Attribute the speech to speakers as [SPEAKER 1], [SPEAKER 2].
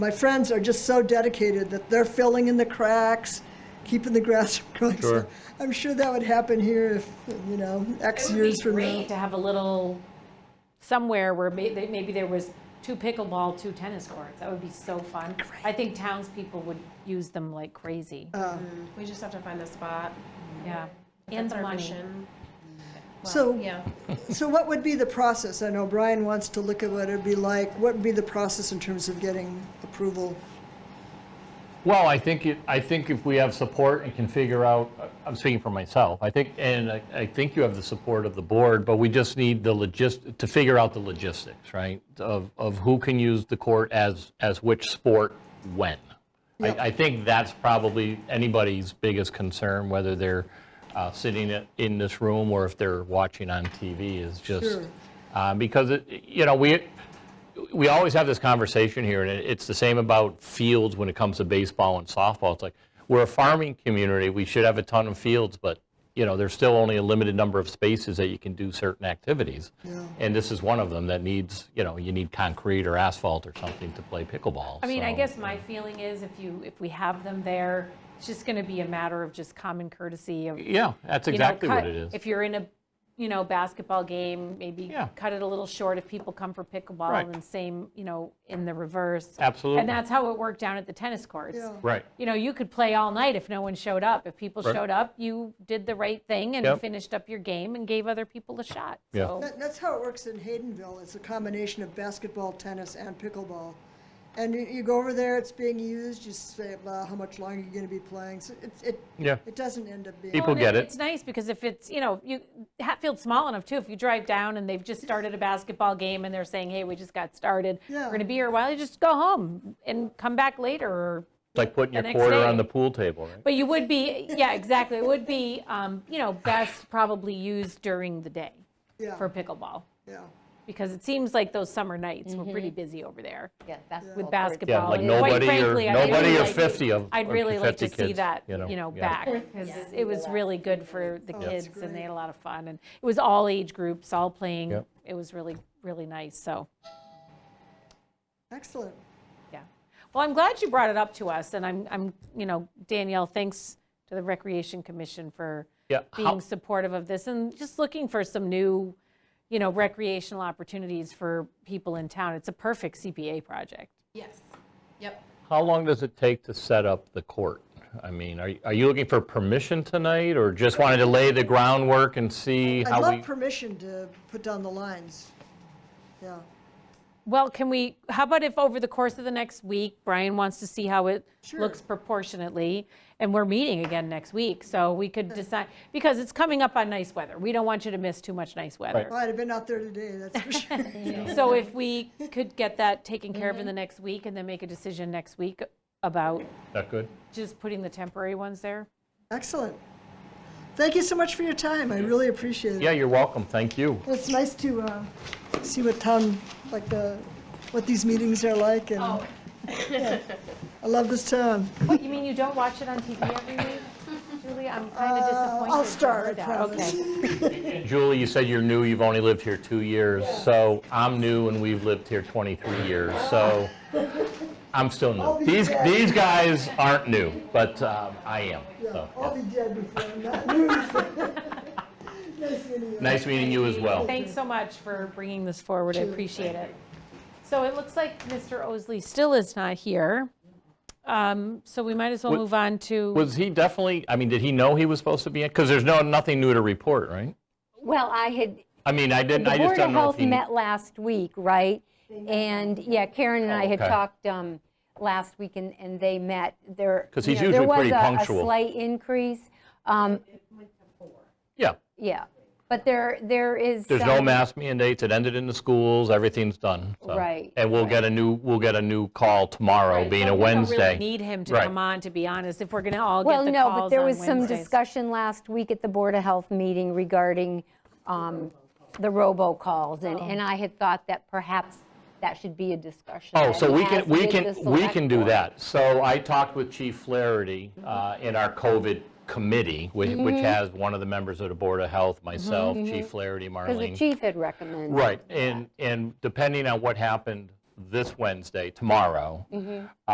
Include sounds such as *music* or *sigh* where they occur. [SPEAKER 1] My friends are just so dedicated that they're filling in the cracks, keeping the grass *laughs* from growing. So
[SPEAKER 2] Sure.
[SPEAKER 1] I'm sure that would happen here if, you know, X
[SPEAKER 3] It would
[SPEAKER 1] years
[SPEAKER 3] be
[SPEAKER 1] from now.
[SPEAKER 3] great to have a little, somewhere where may- they- maybe there was two pickleball, two tennis courts. That would be so fun. I think townspeople would use them like crazy,
[SPEAKER 1] Um,
[SPEAKER 4] We just have to find a spot.
[SPEAKER 3] yeah. And
[SPEAKER 4] That's
[SPEAKER 3] the
[SPEAKER 4] our
[SPEAKER 3] money.
[SPEAKER 4] mission. Well,
[SPEAKER 1] So-
[SPEAKER 4] Yeah.
[SPEAKER 1] So what would be the process? I know Brian wants to look at what it'd be like. What would be the process in terms of getting approval?
[SPEAKER 2] Well, I think, it- I think if we have support and can figure out, I'm speaking for myself, I think, and I I think you have the support of the board, but we just need the logist, to figure out the logistics, right? Of, of who can use the court as, as which sport when. I,
[SPEAKER 1] Yeah.
[SPEAKER 2] I think that's probably anybody's biggest concern, whether they're uh, sitting i- in this room or if they're watching on TV is just,
[SPEAKER 1] Sure.
[SPEAKER 2] uh, because, it- you know, we, we always have this conversation here, and it- it's the same about fields when it comes to baseball and softball. It's like, we're a farming community, we should have a ton of fields, but, you know, there's still only a limited number of spaces that you can do certain activities. And this is one of them that needs, you know, you need concrete or asphalt or something to play pickleball.
[SPEAKER 3] I mean, I
[SPEAKER 2] so-
[SPEAKER 3] guess my feeling is if you, if we have them there, it's just going to be a matter of just common courtesy of,
[SPEAKER 2] Yeah, that's
[SPEAKER 3] you know,
[SPEAKER 2] exactly what
[SPEAKER 3] cut-
[SPEAKER 2] it is.
[SPEAKER 3] If you're in a, you know, basketball game, maybe
[SPEAKER 2] Yeah.
[SPEAKER 3] cut it a little short if people come for
[SPEAKER 2] Right.
[SPEAKER 3] pickleball and same, you know, in the reverse.
[SPEAKER 2] Absolutely.
[SPEAKER 3] And that's how it worked down at the tennis courts.
[SPEAKER 1] Yeah.
[SPEAKER 2] Right.
[SPEAKER 3] You know, you could play all night if no one showed up. If people
[SPEAKER 2] Right.
[SPEAKER 3] showed up, you did the right thing and
[SPEAKER 2] Yep.
[SPEAKER 3] finished up your game and gave other people a shot.
[SPEAKER 2] Yeah.
[SPEAKER 3] So
[SPEAKER 1] That, that's how it works in Haydenville. It's a combination of basketball, tennis, and pickleball. And you, you go over there, it's being used, you say, "Well, how much longer are you gonna be playing? So it, it,
[SPEAKER 2] Yeah.
[SPEAKER 1] it doesn't end up being.
[SPEAKER 2] People
[SPEAKER 3] Well,
[SPEAKER 2] get
[SPEAKER 3] and
[SPEAKER 2] it.
[SPEAKER 3] It's nice because if it's, you know, you, Hatfield's small enough too. If you drive down and they've just started a basketball game and they're saying, hey, we just got started.
[SPEAKER 1] Yeah.
[SPEAKER 3] We're going to be here a while. You just go home and come back later or
[SPEAKER 2] It's like putting your
[SPEAKER 3] next
[SPEAKER 2] quarter on
[SPEAKER 3] day.
[SPEAKER 2] the pool table, right?
[SPEAKER 3] But you would be, yeah, exactly. It would be, um, you know, best probably used during the day
[SPEAKER 1] Yeah,
[SPEAKER 3] for pickleball
[SPEAKER 1] yeah.
[SPEAKER 3] because it seems like those summer nights were
[SPEAKER 1] Mm-hmm.
[SPEAKER 3] pretty busy over there
[SPEAKER 5] Yeah, basketball.
[SPEAKER 3] with
[SPEAKER 5] courts.
[SPEAKER 3] basketball.
[SPEAKER 2] Yeah, like
[SPEAKER 3] And quite
[SPEAKER 2] nobody or,
[SPEAKER 3] frankly, I'd really
[SPEAKER 2] nobody or
[SPEAKER 3] like-
[SPEAKER 2] 50 of
[SPEAKER 3] I'd
[SPEAKER 2] or
[SPEAKER 3] really like to
[SPEAKER 2] 50
[SPEAKER 3] see
[SPEAKER 2] kids,
[SPEAKER 3] that, you know,
[SPEAKER 2] yeah.
[SPEAKER 3] back because
[SPEAKER 5] Yeah.
[SPEAKER 3] it was really good for the
[SPEAKER 1] that's
[SPEAKER 3] kids and
[SPEAKER 1] great.
[SPEAKER 3] they had a lot of fun and it was all age groups, all playing.
[SPEAKER 2] Yep.
[SPEAKER 3] It was really, really nice. So,
[SPEAKER 1] Excellent.
[SPEAKER 3] yeah. Well, I'm glad you brought it up to us and I'm, I'm, you know, Danielle, thanks to the Recreation Commission for
[SPEAKER 2] Yeah, how-
[SPEAKER 3] being supportive of this and just looking for some new, you know, recreational opportunities for people in town. It's a perfect CPA project.
[SPEAKER 4] Yes. Yep.
[SPEAKER 2] How long does it take to set up the court? I mean, are, are you looking for permission tonight, or just wanted to lay the groundwork and see
[SPEAKER 1] I'd
[SPEAKER 2] how
[SPEAKER 1] love
[SPEAKER 2] we?
[SPEAKER 1] permission to put down the lines. Yeah,
[SPEAKER 3] Well, can we, how about if over the course of the next week, Brian wants to see how it looks
[SPEAKER 1] Sure.
[SPEAKER 3] proportionately, and we're meeting again next week, so we could decide, because it's coming up on nice weather. We don't want you to miss too much nice weather.
[SPEAKER 1] Well, I'd have been out there today, that's for sure.
[SPEAKER 3] So if we could get that taken care of in the next week and then make a decision next week about
[SPEAKER 2] That good?
[SPEAKER 3] just putting the temporary ones there?
[SPEAKER 1] Excellent. Thank you so much for your time, I really appreciate it.
[SPEAKER 2] Yeah, you're welcome, thank you.
[SPEAKER 1] It's nice to uh, see what town, like the, what these meetings are like, and yeah. *laughs* I love this town.
[SPEAKER 3] What, you mean you don't watch it on TV every *laughs* week? Uh, Julie, I'm kind of disappointed.
[SPEAKER 1] I'll
[SPEAKER 3] to
[SPEAKER 1] start, I
[SPEAKER 3] hear that.
[SPEAKER 1] promise.
[SPEAKER 2] Oh,
[SPEAKER 3] Okay.
[SPEAKER 2] Julie, you said you're new, you've only lived here two years, so I'm new and we've lived here 23 years, so I'm still new. These, these guys aren't new, but um, I am, so.
[SPEAKER 1] I'll be dead before I'm not *laughs* moving. Nice meeting you.
[SPEAKER 2] Nice meeting you as well.
[SPEAKER 3] Thanks so much for bringing this forward, I appreciate it. So it looks like Mr. Osley still is not here, Um, so we might as well
[SPEAKER 2] Wa-
[SPEAKER 3] move on to,
[SPEAKER 2] Was he definitely, I mean, did he know he was supposed to be in? Because there's no, nothing new to report, right?
[SPEAKER 5] Well, I had,
[SPEAKER 2] I mean, I didn't,
[SPEAKER 5] the
[SPEAKER 2] I just
[SPEAKER 5] Board of
[SPEAKER 2] don't know if
[SPEAKER 5] Health
[SPEAKER 2] he.
[SPEAKER 5] met last week, right? And, yeah, Karen and I had
[SPEAKER 2] Oh, okay.
[SPEAKER 5] talked um, last week, and, and they met. There,
[SPEAKER 2] 'Cause
[SPEAKER 5] you
[SPEAKER 2] he's
[SPEAKER 5] know,
[SPEAKER 2] usually pretty
[SPEAKER 5] There
[SPEAKER 2] punctual.
[SPEAKER 5] was a- a slight increase, um,
[SPEAKER 2] Yeah.
[SPEAKER 5] yeah, but there, there is.
[SPEAKER 2] There's no
[SPEAKER 5] some-
[SPEAKER 2] mask mandates, it ended in the schools, everything's done. so.
[SPEAKER 5] Right,
[SPEAKER 2] And we'll get a new, we'll get a new call tomorrow, being a
[SPEAKER 3] we don't really
[SPEAKER 2] Wednesday.
[SPEAKER 3] need him to
[SPEAKER 2] Right.
[SPEAKER 3] come on, to be honest, if we're going to all get
[SPEAKER 5] Well,
[SPEAKER 3] the
[SPEAKER 5] no, but
[SPEAKER 3] calls
[SPEAKER 5] there
[SPEAKER 3] on
[SPEAKER 5] was some
[SPEAKER 3] Wednesdays.
[SPEAKER 5] discussion last week at the Board of Health meeting regarding um, the robocalls, and, and I had thought that perhaps that should be a discussion.
[SPEAKER 2] Oh,
[SPEAKER 5] that
[SPEAKER 2] so we
[SPEAKER 5] has
[SPEAKER 2] can, we
[SPEAKER 5] with
[SPEAKER 2] can,
[SPEAKER 5] the
[SPEAKER 2] we
[SPEAKER 5] select
[SPEAKER 2] can do
[SPEAKER 5] board.
[SPEAKER 2] that. So I talked with Chief Flaherty uh, in our COVID committee, whi- which
[SPEAKER 3] Mm-hmm.
[SPEAKER 2] has one of the members of the Board of Health, myself, Chief Flaherty, Marlene.
[SPEAKER 5] Because the chief had recommended.
[SPEAKER 2] Right, and, and depending on what happened
[SPEAKER 3] Mm-hmm.
[SPEAKER 2] this Wednesday, tomorrow.